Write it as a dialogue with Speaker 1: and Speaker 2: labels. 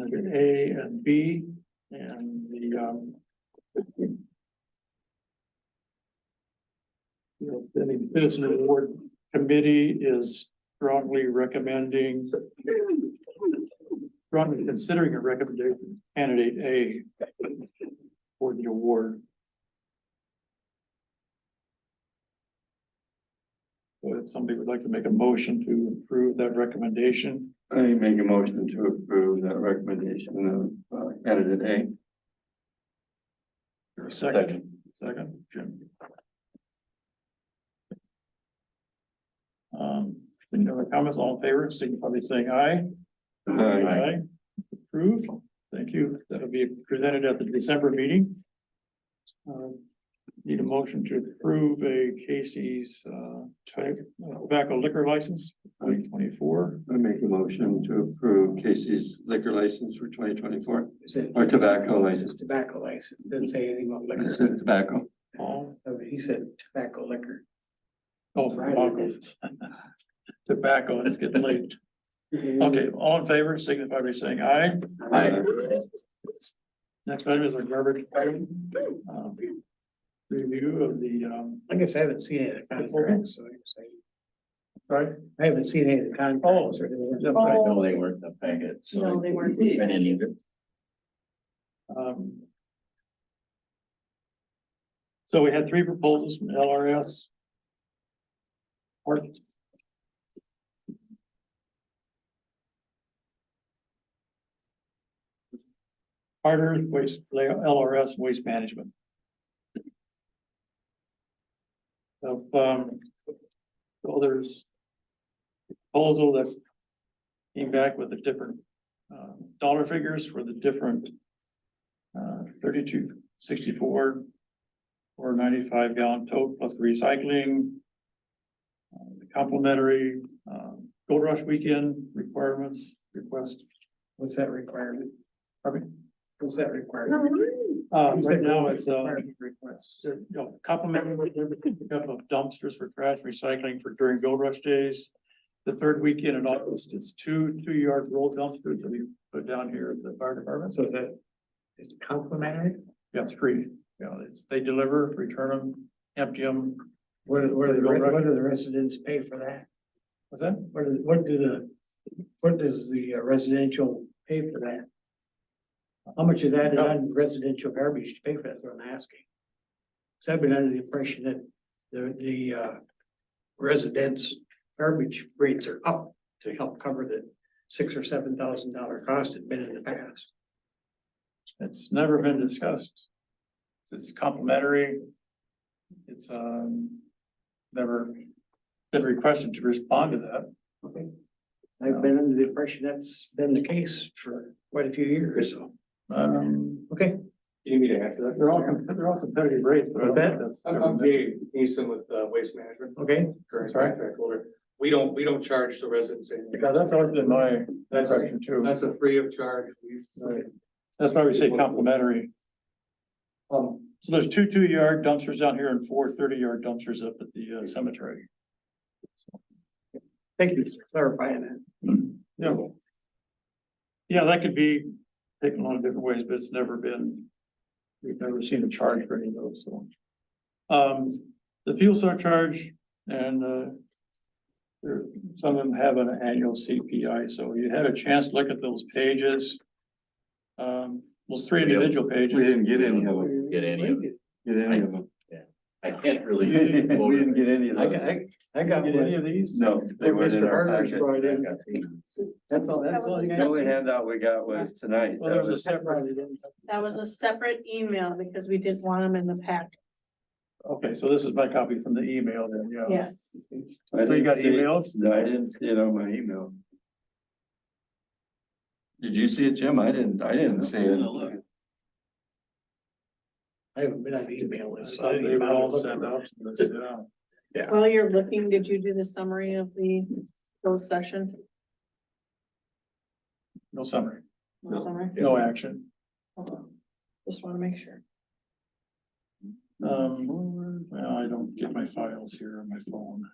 Speaker 1: under A and B and the, um. You know, any business award committee is strongly recommending. Strongly considering a recommendation candidate A for the award. So if somebody would like to make a motion to approve that recommendation.
Speaker 2: I make a motion to approve that recommendation of uh, candidate
Speaker 1: Or a
Speaker 2: Second.
Speaker 1: second, second, Jim. Um, any other comments, all in favor, signify by saying aye.
Speaker 2: A. Aye.
Speaker 1: Approved, thank you, that'll be presented at the December meeting. Um, Need a motion to approve a Casey's uh type tobacco liquor license, twenty twenty-four.
Speaker 2: I make a motion to approve Casey's liquor license for twenty twenty-four,
Speaker 3: Is it?
Speaker 2: or tobacco
Speaker 3: It's
Speaker 2: license,
Speaker 3: tobacco license, didn't say anything about
Speaker 2: I
Speaker 3: liquor,
Speaker 2: said tobacco.
Speaker 1: All,
Speaker 3: Oh, he said tobacco liquor.
Speaker 1: all tobacco. Oh, Tobacco, it's getting late. Okay, all in favor, signify by saying aye.
Speaker 2: Aye.
Speaker 1: Next item is our garbage item. um, Review of the, um,
Speaker 3: I guess I haven't seen any of the contracts, so I guess I-
Speaker 1: sorry,
Speaker 3: I haven't seen any of the contracts or anything.
Speaker 4: Oh.
Speaker 5: I know they weren't the packet, so.
Speaker 4: No, they weren't.
Speaker 5: Been any of it.
Speaker 1: um. So we had three proposals from LRS. Art, Harder Waste, LRS Waste Management. Of, um, so there's proposal that came back with the different, uh, dollar figures for the different uh, thirty-two sixty-four or ninety-five gallon tote plus recycling. uh, the Complimentary, um, Gold Rush Weekend requirements, request,
Speaker 3: What's that requirement?
Speaker 1: pardon
Speaker 3: What's that requirement? Um,
Speaker 1: me. Uh, right now it's, uh,
Speaker 3: Requirement Request.
Speaker 1: you know, complimentary pickup of dumpsters for trash recycling for during Gold Rush days. The third weekend in August, it's two, two-yard roll dumpsters that we put down here at the fire department.
Speaker 3: So that is complimentary?
Speaker 1: Yeah, it's free, you know, it's, they deliver, return them, empty them,
Speaker 3: What do, what do, the re- what do the residents pay for that?
Speaker 1: what's that?
Speaker 3: What do, what do the, what does the uh, residential pay for that? How much of that is on residential garbage to pay for that, is what I'm asking? So I've been under the impression that the, the, uh, residents' garbage rates are up to help cover the six or seven thousand dollar cost it's been in the past.
Speaker 1: It's never been discussed. It's complimentary. It's, um, never been requested to respond to that.
Speaker 3: Okay. I've been under the impression that's been the case for quite a few years, so,
Speaker 1: Um,
Speaker 3: okay.
Speaker 6: You need to add to that.
Speaker 1: they're all, com- they're all competitive rates, but I don't think that's.
Speaker 6: I'm, I'm Dave Neeson with, uh, Waste Management,
Speaker 3: Okay,
Speaker 6: current
Speaker 1: Sorry?
Speaker 6: contract holder. We don't, we don't charge the residents anything.
Speaker 1: Yeah, that's always been my impression too.
Speaker 6: That's a free of charge. We- uh,
Speaker 1: Right. That's why we say complimentary.
Speaker 6: Um,
Speaker 1: So there's two two-yard dumpsters down here and four 30 yard dumpsters up at the uh, cemetery.
Speaker 3: thank you for clarifying that.
Speaker 1: Yeah. Yeah, that could be taken a lot of different ways, but it's never been, we've never seen a charge for any of those, so. Um, the fuel surcharge and, uh, there, some of them have an annual CPI, so you had a chance to look at those pages. Um, those three individual
Speaker 2: We
Speaker 1: pages,
Speaker 2: didn't get any of them,
Speaker 5: Get any of it.
Speaker 2: get any of them.
Speaker 5: I can't really.
Speaker 2: We didn't we didn't get any of
Speaker 3: I got,
Speaker 2: those.
Speaker 3: I, I got
Speaker 1: did any
Speaker 3: one.
Speaker 1: of these?
Speaker 2: No, they
Speaker 3: What
Speaker 2: weren't in
Speaker 3: Mr.
Speaker 2: our
Speaker 3: Harder's
Speaker 2: packet.
Speaker 3: brought in.
Speaker 2: That's all,
Speaker 4: that's all you got?
Speaker 2: The only handout we got was tonight.
Speaker 1: Well, there was a separate,
Speaker 4: That was a separate email because we didn't want them in the pack,
Speaker 1: okay, so this is my copy from the email then, yeah.
Speaker 4: yes.
Speaker 2: I
Speaker 1: So you got
Speaker 2: didn't see-
Speaker 1: emails?
Speaker 2: No, I didn't see it on my email. Did you see it, Jim? I didn't, I didn't see it.
Speaker 3: I haven't been on the email list. so I
Speaker 1: So
Speaker 3: didn't
Speaker 1: they were
Speaker 3: bother
Speaker 1: all
Speaker 3: looking.
Speaker 1: sent out to this, yeah.
Speaker 4: While you're looking, did you do the summary of the closed session?
Speaker 1: No summary,
Speaker 4: No summary?
Speaker 1: no action.
Speaker 4: Hold on. Just wanna make sure.
Speaker 1: Mm-hmm. Um, well, I don't get my files here on my phone.